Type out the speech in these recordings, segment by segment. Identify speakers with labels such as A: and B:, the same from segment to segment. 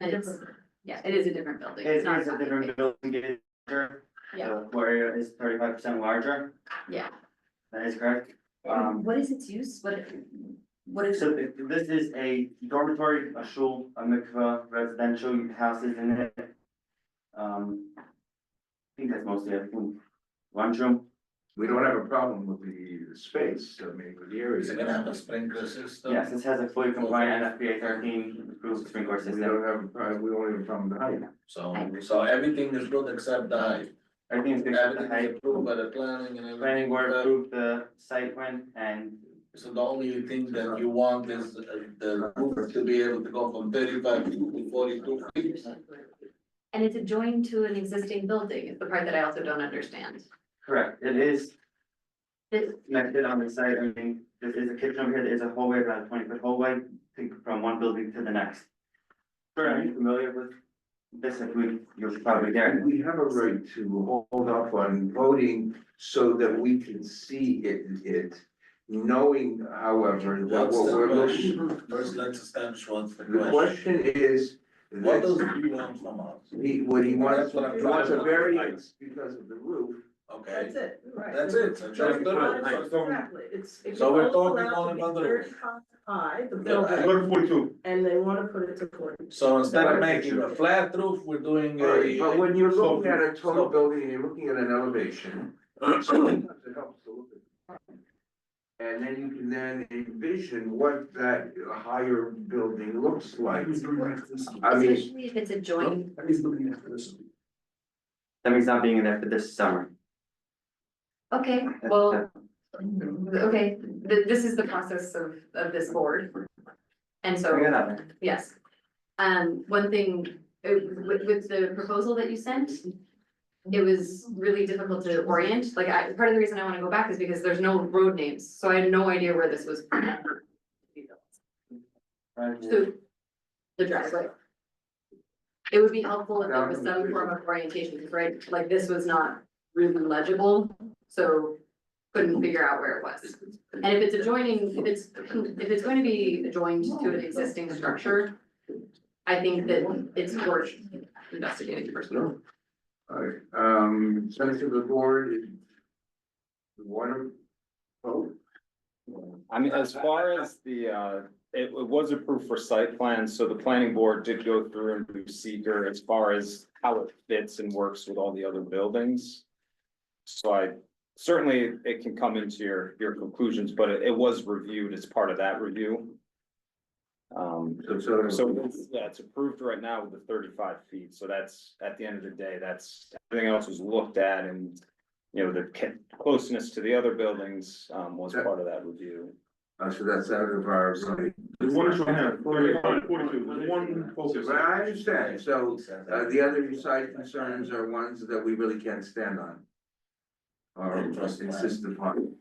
A: But it's, yeah, it is a different building.
B: It is
A: It's not
B: a
A: copy.
B: different building, it is larger.
A: Yeah.
B: The floor area is thirty-five percent larger,
A: Yeah.
B: that is correct. Um,
A: What is its use? What, what is,
B: so th- this is a dormitory, a shul, a mikveh, residential houses in it. Um, I think that's mostly a room, lunchroom.
C: We don't have a problem with the space, I mean, with the area.
D: It's gonna have a sprinkler system.
B: Yes, this has a fully compliant NFPA thirteen approved sprinkler
C: We
B: system.
C: don't have, a problem. we don't have a problem with the height.
D: So, so everything is good except the height.
B: Everything is good for the
D: Everything is
B: height.
D: approved by the planning and everything.
B: Planning board
D: Uh,
B: approved the site plan and
D: So the only thing that you want is uh, the roof to be able to go from thirty-five feet to forty-two feet.
A: and it's adjoined to an existing building is the part that I also don't understand.
B: correct, it is
A: This,
B: connected on the site, I mean, there is a kitchen over here, there's a hallway, about a twenty foot hallway, think from one building to the next. Sure, are you familiar with this, if we, you're probably there,
C: We have a right to hold off on voting so that we can see it, it, knowing however, that
D: What's
C: what
D: the
C: we're looking.
D: question? First, let's establish what's the
C: The
D: question.
C: question is,
D: What does
C: that's,
D: he want from us?
C: he, what he wants,
D: That's what I'm
C: he wants
D: trying
C: a
D: to-
C: variance because of the roof.
D: Okay,
E: That's it, right.
D: that's it. So just the roof.
E: Exactly, it's, it's
D: So we're
E: all
D: talking
E: allowed
D: on
E: to be
D: another-
E: thirty-five high, the
D: Yeah.
E: building, and they wanna put it to forty.
D: So instead of making a flat roof, we're doing
C: Right, but
D: a,
C: when you're
D: so-
C: looking at a total
D: so-
C: building, you're looking at an elevation. sometimes it helps to look at- And then you can then envision what that higher building looks like. I mean,
A: especially if it's adjoined,
B: that means not being there for this summer.
A: okay, well,
D: Mm-hmm.
A: okay, th- this is the process of, of this board. And so.
B: Bring it up.
A: Yes. Um, one thing, uh, with, with the proposal that you sent, it was really difficult to orient, like I, part of the reason I wanna go back is because there's no road names, so I had no idea where this was.
B: Right,
A: So, the driveway. It would be helpful if there was some form of orientation, 'cause, right, like this was not really legible, so couldn't figure out where it was. And if it's adjoining, if it's, if it's going to be adjoined to an existing structure, I think that it's worth investigating first.
C: alright, um, send it to the board. if you Want to vote?
F: I mean, as far as the, uh, it, it was approved for site plan, so the planning board did go through and do seeker as far as how it fits and works with all the other buildings. So I, certainly it can come into your, your conclusions, but it, it was reviewed as part of that review. Um,
C: So, so.
F: so it's, yeah, it's approved right now with the thirty-five feet, so that's, at the end of the day, that's, everything else was looked at and. You know, the ca- closeness to the other buildings, um, was part of that review.
C: Uh, so that's out of our.
G: There's one issue I have, forty-five, forty-two, there's one focus.
C: But I understand, so Uh, the other side concerns are ones that we really can't stand on. Or insist upon.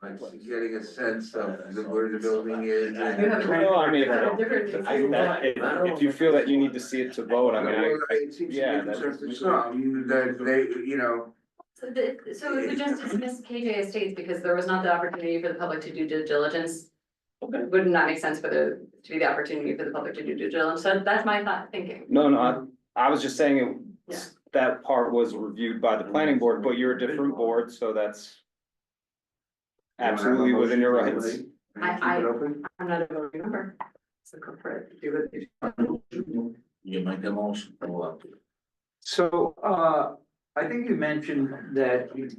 C: Like getting a sense of the- where the building is and.
A: You have a-
F: No, I mean, if-
A: Different-
F: I, that, if, if you feel that you need to see it to vote, I mean, I,
C: It seems to be
F: yeah,
C: a concern to
F: that's-
C: some, that they, you know,
A: So the, so if we just dismiss KJ Estates because there was not the opportunity for the public to do due diligence. Would not make sense for the, to be the opportunity for the public to do due diligence, so that's my thought thinking.
F: no, no, I, I was just saying it. was- That part was reviewed by the planning board, but you're a different board, so that's. Absolutely within your rights.
A: I-
C: keep it open.
A: I'm not a voting member. So go for it. Do what you-
D: you make a motion for what?
H: So, uh, I think you mentioned that you-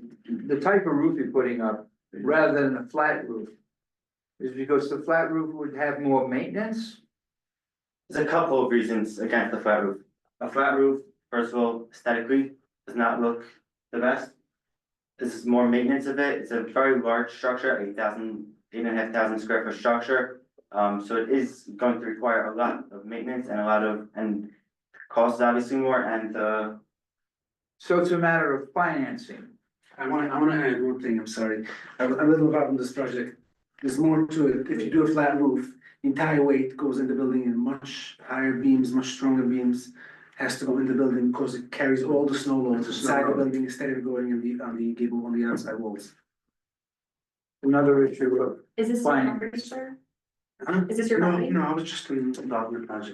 H: the type of roof you're putting up, rather than a flat roof. Is because the flat roof would have more maintenance?
B: There's a couple of reasons against the flat roof. A flat roof, first of all, aesthetically, does not look the best. This is more maintenance of it, it's a very large structure, eight thousand, eight and a half thousand square foot structure. Um, so it is going to require a lot of maintenance and a lot of, and costs obviously more, and the
H: So it's a matter of financing.
I: I wanna, I wanna add one thing, I'm sorry, I'm, I'm a little involved in this project. There's more to it, if you do a flat roof, the entire weight goes in the building in much higher beams, much stronger beams. Has to go in the building, cause it carries all the snow loads
C: It's a
I: inside the
C: snow load.
I: building instead of going in the, on the gable, on the outside walls.
H: Another issue of
A: Is this your
H: Fine.
A: property, sir?
I: Huh?
A: Is this your property?
I: No, no, I was just involved in the project.